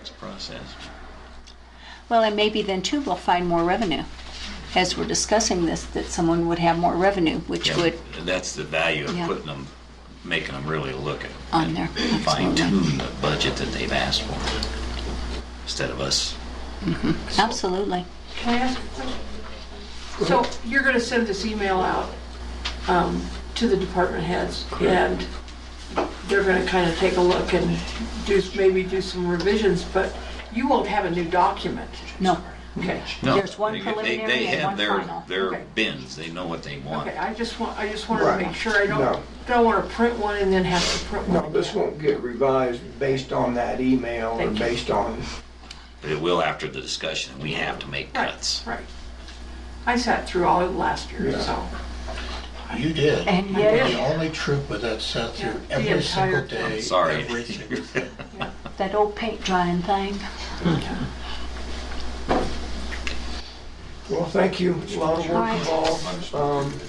this process. Well, and maybe then too, we'll find more revenue. As we're discussing this, that someone would have more revenue, which would, That's the value of Yeah. putting them, making them really look at. On there, Fine absolutely. tune the budget that they've asked for, instead of us. absolutely. Can I ask a question? So you're going to send this email out um, to the department heads, and they're going to kind of take a look and do, maybe do some revisions, but you won't have a new document. No, Okay. No, There's one they- they- preliminary They and have one their, final. their Okay. bins, they know what they want. Okay, I just want, I just wanted to Right. make sure I No. don't, don't want to print one and then have to print one No, this again. won't get revised based on that email or Thank you. based on, But it will after the discussion, we have to make Right, cuts. Right. I sat through all of last year, Yeah. so. You did. And You yet- were the only troop with that sat through Yeah, the every single entire- day. I'm sorry. every single day. that old paint drying thing. well, thank you, it's a lot of work Right. involved. Um,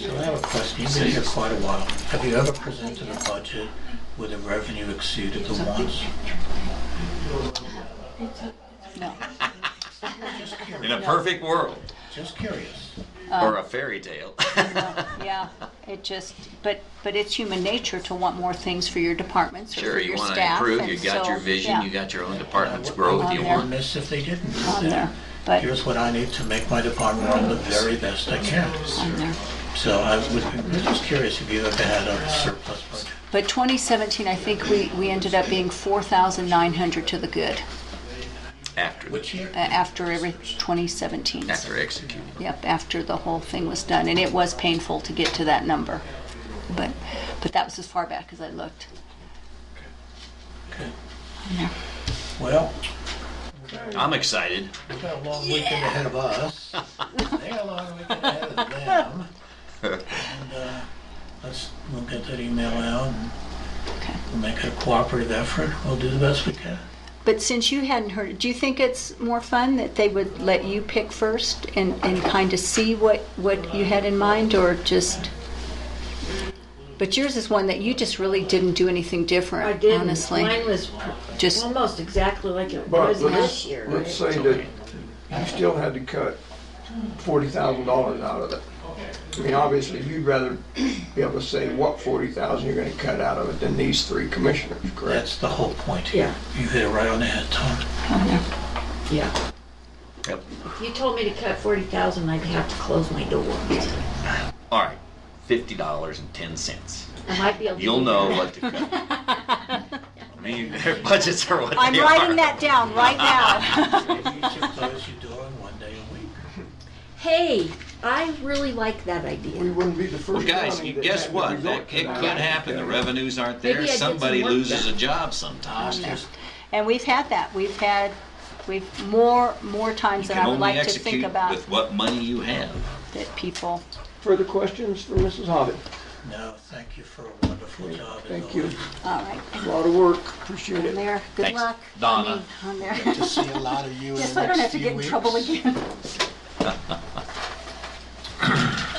So I have a question. You've been here quite a while. Have you ever presented a budget where the revenue exceeded the wants? No, Just In a curious. perfect world, Just curious. or a fairy tale. Uh, yeah, it just, but, but it's human nature to want more things for your departments or Sure, for you your want to staff. improve, and you got so, your vision, yeah, you got your own department's I growth on you there. want. Miss if they didn't do On there, that. but, Here's what I need to make my department run the very best I can. on there. So I would, I'm just curious if you ever had a surplus budget. But 2017, I think we, we ended up being 4,900 to the good after, the- Which year? uh, after every 2017. after executing. Yep, after the whole thing was done, and it was painful to get to that number. But, but that was as far back as I looked. Uh, Okay. Yeah. Well, I'm excited. we got a long weekend ahead of us. They got a long weekend ahead of them. And uh, let's, we'll get that email out and Okay. we'll make it a cooperative effort. We'll do the best we can. But since you hadn't heard, do you think it's more fun that they would let you pick first and, and kind of see what, what you had in mind, or just? But yours is one that you just really didn't do anything different, I didn't. honestly. Mine was pr- Just- almost exactly like it But was let's, this year. let's right? say that you still had to cut forty thousand dollars out of it. I mean, obviously, you'd rather be able to say what forty thousand you're gonna cut out of it than these three commissioners, correct? That's the whole point here. You hit it right on the head, Tom. Yeah. Yep. If you told me to cut forty thousand, I'd have to close my door. All right, fifty dollars and ten cents. I might be able. to You'll do know that. what to cut. I mean, their budgets are what I'm they writing are. that down right now. You should close your door on one day a week. Hey, I really like that We idea. wouldn't be the Well, first guys, county you- that guess had the what? result That- It come could out. happen. The revenues aren't there. Maybe I did some Somebody work loses a done. job sometimes. And we've had that. We've had, we've more, more times than can I would only like to execute think about With what money you have. that people. Further questions for Mrs. Hobbit? No, thank you for a wonderful job. as Thank you, always. All right, a lot of work, appreciate on it. there. Good Thanks, luck. I Donna. mean, On there. To see a lot of you in the next few weeks. Just so I don't have to get in trouble again.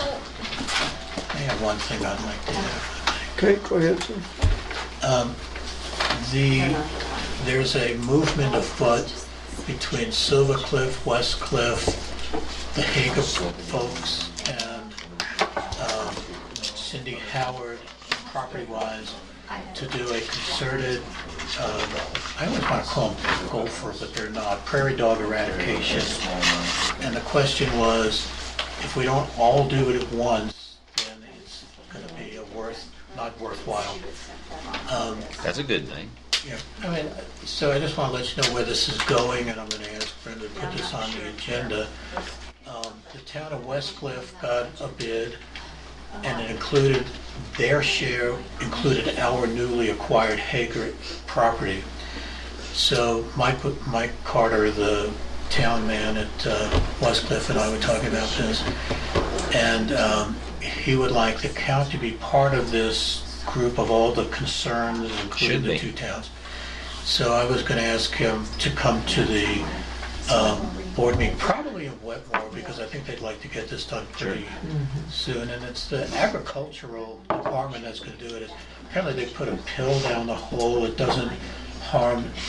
I have one thing I'd like to add. Okay, go ahead, sir. The, there's a movement afoot between Silver Cliff, West Cliff, the Hager folks, and um, Cindy Howard, property-wise, to do a concerted, um, I always want to call them gopher, but they're not, prairie dog eradication. And the question was, if we don't all do it at once, then it's going to be a worth, not worthwhile. Um, That's a good thing. yeah, I mean, so I just want to let you know where this is going, and I'm going to ask Brenda to put this on the agenda. Um, The town of West Cliff got a bid, and it included, their share included our newly acquired Hager property. So Mike, Mike Carter, the town man at uh, West Cliff, and I were talking about this, and um, he would like the county to be part of this group of all the concerns, including Should the be. two towns. So I was going to ask him to come to the um, board meeting, probably in Wetmore, because I think they'd like to get this done pretty soon. And it's the agricultural department that's going to do it. Apparently, they put a pill down the hole. It doesn't harm